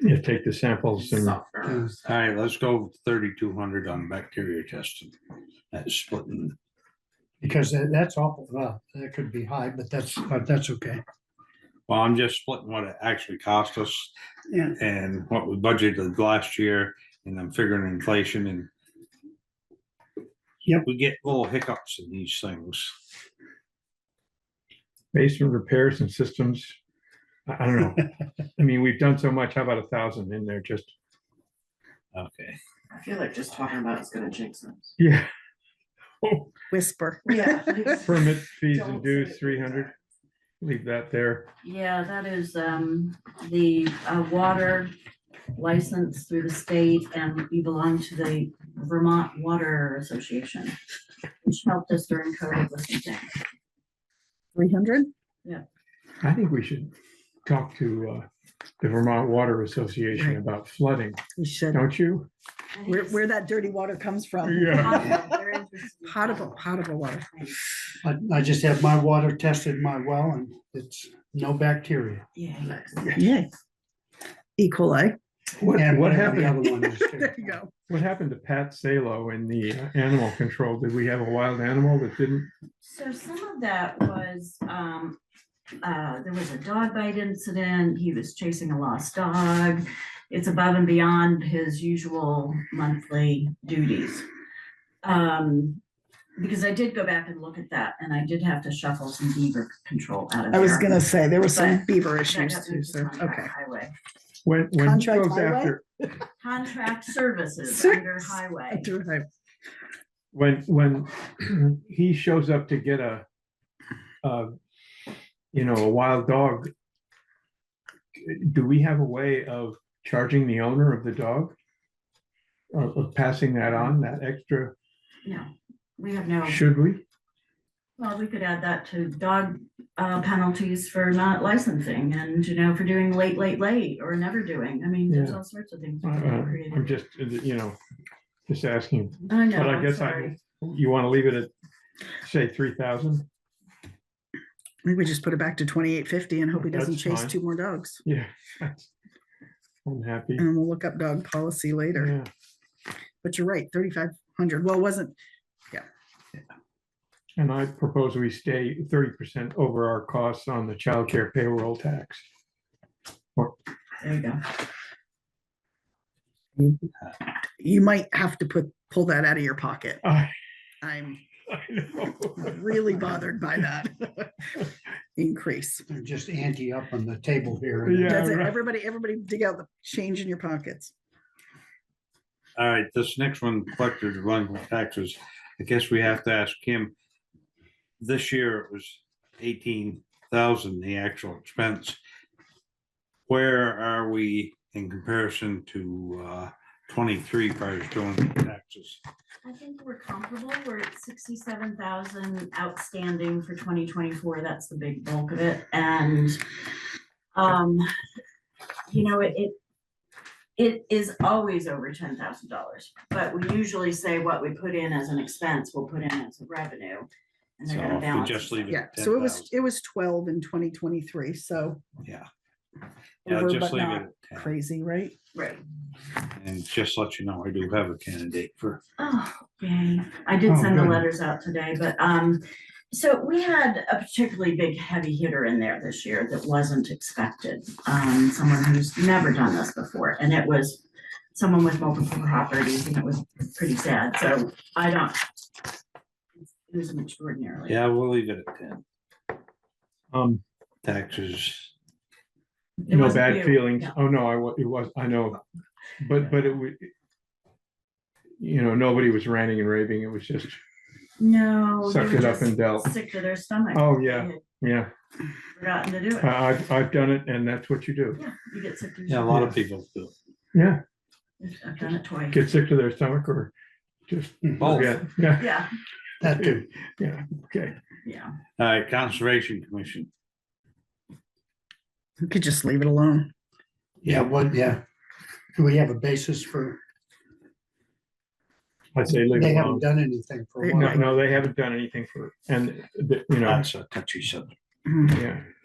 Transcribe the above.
you take the samples and All right, let's go thirty-two hundred on bacteria testing. That's splitting. Because that- that's awful, well, that could be high, but that's, but that's okay. Well, I'm just splitting what it actually cost us Yeah. and what we budgeted last year, and I'm figuring inflation and Yep. we get little hiccups in these things. basement repairs and systems. I, I don't know. I mean, we've done so much. How about a thousand in there? Just, Okay. I feel like just talking about it's gonna jinx us. yeah. whisper. Yeah. Permit fees and Don't say dues, it. three hundred. Leave that there. Yeah, that is um the uh water license through the state and we belong to the Vermont Water Association. Which helped us during COVID with some things. Three hundred? I think we should talk to uh, the Vermont Water Association Right. about flooding, We should. don't you? Where, where that dirty water comes from. Yeah. Potable, potable water. I, I just have my water tested in my well and it's no bacteria. Yeah. Yay. E. Equally. What, And what whatever the happened, other one is too. There you go. what happened to Pat Salo in the uh, animal control? Did we have a wild animal that didn't? So some of that was um uh there was a dog bite incident. He was chasing a lost dog. It's above and beyond his usual monthly duties. Um because I did go back and look at that and I did have to shuffle some beaver control out of I there. was gonna say, there were some some beaver That issues got too, moved to so, contract okay. Highway, When, when he Contract goes highway? after, contract services under highway. when, when he shows up to get a, uh, you know, a wild dog, do we have a way of charging the owner of the dog? Of of passing that on, that extra, No, we have no. should we? Well, we could add that to dog uh, penalties for not licensing and, you know, for doing late, late, late or never doing. I mean, there's Yeah. all sorts of things. Uh, we could have I'm created. just, uh, you know, just asking. I know, But I I'm guess sorry. I, you want to leave it at, say, three thousand? Maybe we just put it back to twenty-eight fifty and hope he doesn't That's chase fine. two more dogs. Yeah. that's- I'm happy. And we'll look up dog policy later, Yeah, but you're right, thirty-five hundred. Well, it wasn't, and I propose we stay thirty percent over our costs on the childcare payroll tax. There you go. you might have to put, pull that out of your pocket. I, I'm I know. really bothered by that increase. They're just anti up on the table here. Yeah. Does it, right. everybody, everybody dig out the change in your pockets. All right, this next one, collectors running with taxes, I guess we have to ask him. This year it was eighteen thousand, the actual expense. Where are we in comparison to uh twenty-three prior to doing the taxes? I think we're comparable. We're at sixty-seven thousand outstanding for twenty twenty-four. That's the big bulk of it. And, um, you know, it, it, it is always over ten thousand dollars, but we usually say what we put in as an expense, we'll put in as a revenue. And So they're gonna if we balance. just leave it Yeah, at so it ten was, thousand, it was twelve in twenty twenty-three, so. yeah. Yeah, over, just but leave not it at Crazy, right? Right. ten, and just let you know, I do have a candidate for, Oh, yay. I did Oh, send the good. letters out today, but, um, so we had a particularly big heavy hitter in there this year that wasn't expected. Um, someone who's never done this before, and it was someone with multiple properties, and it was pretty sad, so I don't. It was an extraordinarily. yeah, we'll leave it at ten, Um, taxes. It no wasn't bad you. feelings. No. Oh, no, I, wa- it was, I know, but, but it would, you know, nobody was ranting and raving. It was just, Oh, No. they Sucked were it up just and dealt. Sick to their stomach. Oh, yeah. They had yeah, Forgotten to do it. I, I've, I've done it and that's what you do. Yeah, you get sick to your Yeah, a stomach. lot of people do. Yeah, I've done it twice. get sick to their stomach or just Both. forget. Yeah, Yeah, hmm, That too. yeah, okay. yeah. All right, Conservation Commission. We could just leave it alone. Yeah, what, yeah. Do we have a basis for, I'd say leave they it alone. haven't done anything for a They- while. No, no, they haven't done anything for, and, the- you know, That's a touchy subject. Mhm. yeah,